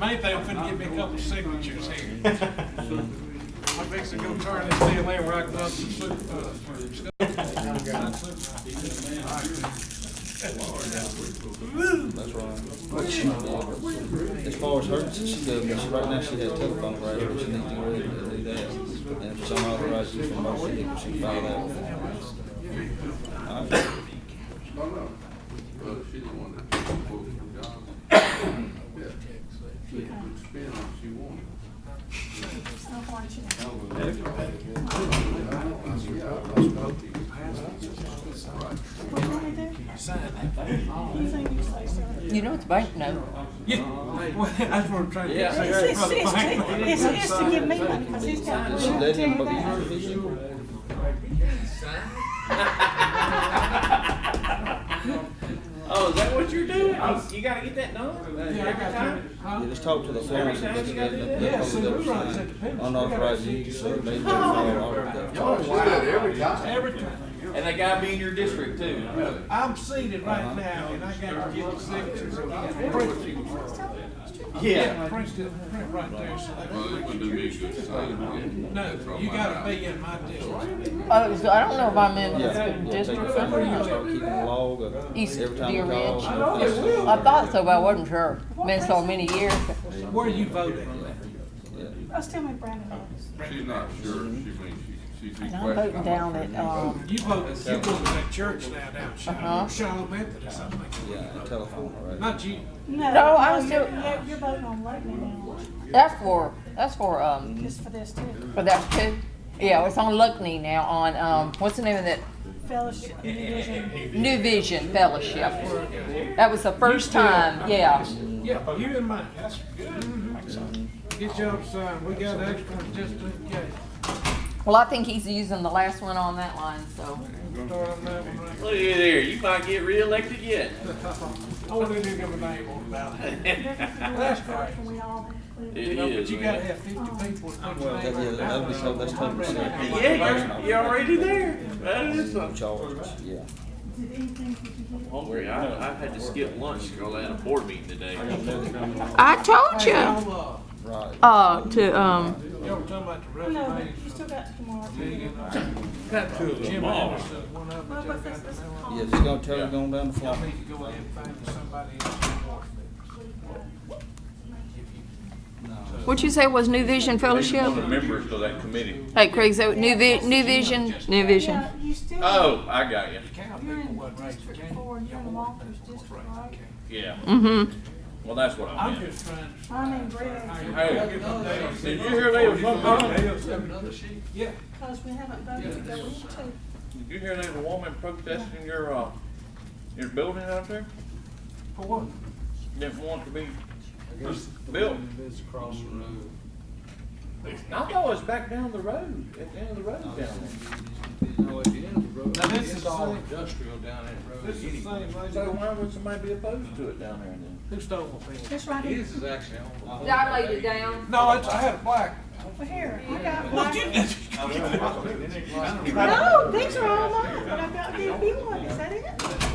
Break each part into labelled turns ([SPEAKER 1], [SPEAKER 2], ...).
[SPEAKER 1] Main thing, I'm finna get me a couple signatures here.
[SPEAKER 2] Oh,
[SPEAKER 1] I'm fixing to go turn this deal in where I can up some soup, uh, stuff.
[SPEAKER 3] That's right. As far as her, she, she, uh, she- right now she has telephone right, she needs to really do that. And if some authorized use of motion, she can file that. Alright.
[SPEAKER 4] Well, she's the one that booked the job. Yeah. She could spend all she wanted.
[SPEAKER 5] You know, it's bank note.
[SPEAKER 1] Yeah, well, that's what I'm trying to
[SPEAKER 3] Yeah.
[SPEAKER 1] say.
[SPEAKER 3] It's-
[SPEAKER 1] That's what I'm thinking.
[SPEAKER 6] It's his to give me money, cause he's got.
[SPEAKER 3] She let him, but you should be here.
[SPEAKER 2] Oh, is that what you're doing? You gotta get that done?
[SPEAKER 1] Yeah, I got that. Huh?
[SPEAKER 3] Yeah, just talk to the floor.
[SPEAKER 2] Every time you gotta do that.
[SPEAKER 1] Yeah, see, we run it at the pen.
[SPEAKER 3] Unauthorized use of, they do all of that.
[SPEAKER 4] She did every time.
[SPEAKER 1] Every time.
[SPEAKER 2] And that guy be in your district too.
[SPEAKER 1] I'm seated right now, and I gotta get the signatures again. Print-
[SPEAKER 2] Yeah.
[SPEAKER 1] Print it, print right there, so they-
[SPEAKER 4] Well, it wouldn't do me a good sign.
[SPEAKER 1] No, you gotta be in my district.
[SPEAKER 5] Oh, so I don't know if I'm
[SPEAKER 3] Yeah,
[SPEAKER 5] in the
[SPEAKER 3] yeah, take your
[SPEAKER 5] district.
[SPEAKER 3] phone and
[SPEAKER 5] or
[SPEAKER 3] start keeping a log of
[SPEAKER 5] East
[SPEAKER 3] every time you
[SPEAKER 5] Deer
[SPEAKER 3] call.
[SPEAKER 5] Ridge.
[SPEAKER 3] no place.
[SPEAKER 5] I thought so, but I wasn't sure. Been so many years.
[SPEAKER 1] Where you voting?
[SPEAKER 3] Yeah.
[SPEAKER 6] Oh, still my Brandon.
[SPEAKER 4] She's not sure, she means she, she's
[SPEAKER 5] And
[SPEAKER 4] questioning.
[SPEAKER 5] I'm voting down at, um,
[SPEAKER 1] You vote, you go to that church now down Shiloh,
[SPEAKER 5] Uh-huh.
[SPEAKER 1] Shiloh Methodist, I think.
[SPEAKER 3] Yeah, and telephone, all right?
[SPEAKER 1] Not you.
[SPEAKER 5] No, I was
[SPEAKER 6] you're-
[SPEAKER 5] still-
[SPEAKER 6] You're, you're voting on Luckney
[SPEAKER 5] that's for, that's for,
[SPEAKER 6] now,
[SPEAKER 5] um,
[SPEAKER 6] just for this too.
[SPEAKER 5] for that too. Yeah, it's on Luckney now on, um, what's the name of that?
[SPEAKER 6] Fellowship, New Vision.
[SPEAKER 5] New Vision Fellowship. That was the first time, yeah.
[SPEAKER 1] Yeah, you and mine, that's good. Get your sign, we got extra ones just in case.
[SPEAKER 5] Well, I think he's using the last one on that line, so.
[SPEAKER 1] Start on that one right.
[SPEAKER 2] Look at there, you might get reelected yet.
[SPEAKER 1] I want to give a name on about it.
[SPEAKER 6] That's correct. We all
[SPEAKER 2] It
[SPEAKER 6] include.
[SPEAKER 1] But
[SPEAKER 2] is,
[SPEAKER 1] you gotta
[SPEAKER 2] man.
[SPEAKER 1] have fifty people. to put your
[SPEAKER 3] That- yeah,
[SPEAKER 1] name
[SPEAKER 3] that'd be so-
[SPEAKER 1] on.
[SPEAKER 3] that's 10%.
[SPEAKER 2] Yeah, you're, you're already there. That is something.
[SPEAKER 3] Charge, yeah.
[SPEAKER 2] Don't worry, I, I had to skip lunch, girl, at a board meeting today.
[SPEAKER 5] I told
[SPEAKER 1] Hey, y'all, uh,
[SPEAKER 3] Right.
[SPEAKER 5] Uh, to, um,
[SPEAKER 1] y'all were talking about the
[SPEAKER 6] No, but
[SPEAKER 1] resumes.
[SPEAKER 6] you still got tomorrow.
[SPEAKER 2] Got two of
[SPEAKER 1] uh, Jim Anderson, one of
[SPEAKER 6] Well,
[SPEAKER 1] them.
[SPEAKER 6] what's this, this
[SPEAKER 3] Yeah,
[SPEAKER 6] called?
[SPEAKER 3] just gonna tell her going down the
[SPEAKER 1] Y'all
[SPEAKER 3] phone.
[SPEAKER 1] need to go ahead and find somebody else. to work with.
[SPEAKER 5] what you say was New Vision
[SPEAKER 2] One of the members of that committee.
[SPEAKER 5] Hey, Craig, so New Vi- New Vision, New Vision.
[SPEAKER 6] Yeah, you still.
[SPEAKER 2] Oh, I got you.
[SPEAKER 1] Cow
[SPEAKER 6] You're
[SPEAKER 1] people
[SPEAKER 6] in
[SPEAKER 1] wasn't raised in
[SPEAKER 6] District
[SPEAKER 1] Canaan.
[SPEAKER 6] Four, you're in Walker's district, right?
[SPEAKER 2] Yeah.
[SPEAKER 5] Mm-hmm.
[SPEAKER 2] Well, that's what I
[SPEAKER 1] I'm
[SPEAKER 2] meant.
[SPEAKER 1] just trying to.
[SPEAKER 6] I mean, Greg,
[SPEAKER 2] Hey, did you hear they was
[SPEAKER 1] Somebody
[SPEAKER 2] one,
[SPEAKER 1] else have another sheet? Yeah.
[SPEAKER 6] cause we haven't voted to go into.
[SPEAKER 2] did you hear there was a woman protesting your, uh, your building out there?
[SPEAKER 1] For what?
[SPEAKER 2] didn't want to be built. I thought it was back down the road, at the end of the road down there.
[SPEAKER 1] Now, this is all, this is the same
[SPEAKER 2] So
[SPEAKER 1] lady
[SPEAKER 2] why would somebody be opposed to it down there then?
[SPEAKER 1] who stole my pen.
[SPEAKER 6] This right here,
[SPEAKER 5] Did I lay it down?
[SPEAKER 1] No, it's, I had a black.
[SPEAKER 6] well, here, I got
[SPEAKER 1] Well,
[SPEAKER 6] one.
[SPEAKER 1] get this.
[SPEAKER 6] No, these are all mine, but I've got the big one, is that it?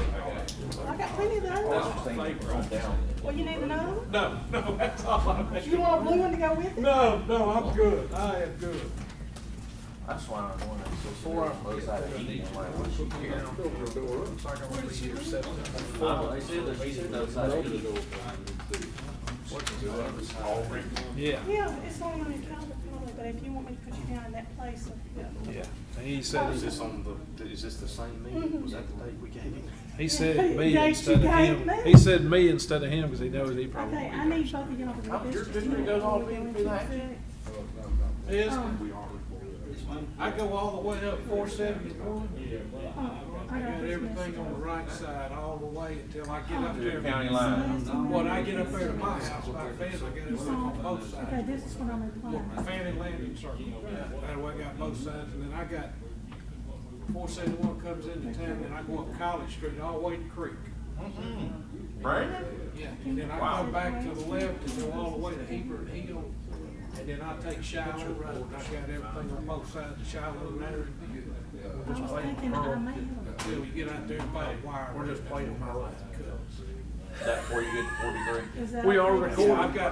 [SPEAKER 6] I've got plenty of those. Well, you need another one?
[SPEAKER 1] No, no, that's all I'm
[SPEAKER 6] You want a blue one to go with it?
[SPEAKER 1] No, no, I'm good. I am good.
[SPEAKER 2] That's why I'm going to, so four of them outside of heat, like, what's she here? I said that she said outside of heat.
[SPEAKER 1] Yeah.
[SPEAKER 6] Yeah, it's only on the calendar probably, but if you want me to put you down in that place, uh,
[SPEAKER 7] Yeah, and he said, is this on the, is this the same meeting? Was that the date we gave him?
[SPEAKER 8] He said me
[SPEAKER 6] Yes,
[SPEAKER 8] instead of
[SPEAKER 6] you gave
[SPEAKER 8] him.
[SPEAKER 6] me.
[SPEAKER 8] He said me instead of him because he knows he probably.
[SPEAKER 6] okay, I need both of y'all to go
[SPEAKER 2] Your
[SPEAKER 6] this.
[SPEAKER 2] district goes all the way to that.
[SPEAKER 1] Yes.
[SPEAKER 6] Oh.
[SPEAKER 1] I go all the way up four seventy-one. I
[SPEAKER 6] Oh, I
[SPEAKER 1] got
[SPEAKER 6] got this
[SPEAKER 1] everything on the
[SPEAKER 6] message. Oh.
[SPEAKER 1] right side all the way until I get up there.
[SPEAKER 2] County line.
[SPEAKER 1] When I get up there to my house, my fence, I got it on both
[SPEAKER 6] Okay,
[SPEAKER 1] sides.
[SPEAKER 6] this is what I'm replying.
[SPEAKER 1] Fanny Landing Circle. That way I got both sides, and then I got, four seventy-one comes into town, and I go up College Street all the way to Creek.
[SPEAKER 2] Brandon?
[SPEAKER 1] Yeah, and then I come back to the left and go all the way to Hebert Hill, and then I take Shiloh Road, I got everything on both sides of Shiloh Road.
[SPEAKER 6] I was thinking that I may have.
[SPEAKER 1] Till we get out there and buy a wire. We're just playing with my life.
[SPEAKER 2] That before you get to forty-three?
[SPEAKER 6] Is that
[SPEAKER 8] We
[SPEAKER 6] okay?
[SPEAKER 8] are
[SPEAKER 1] So I've got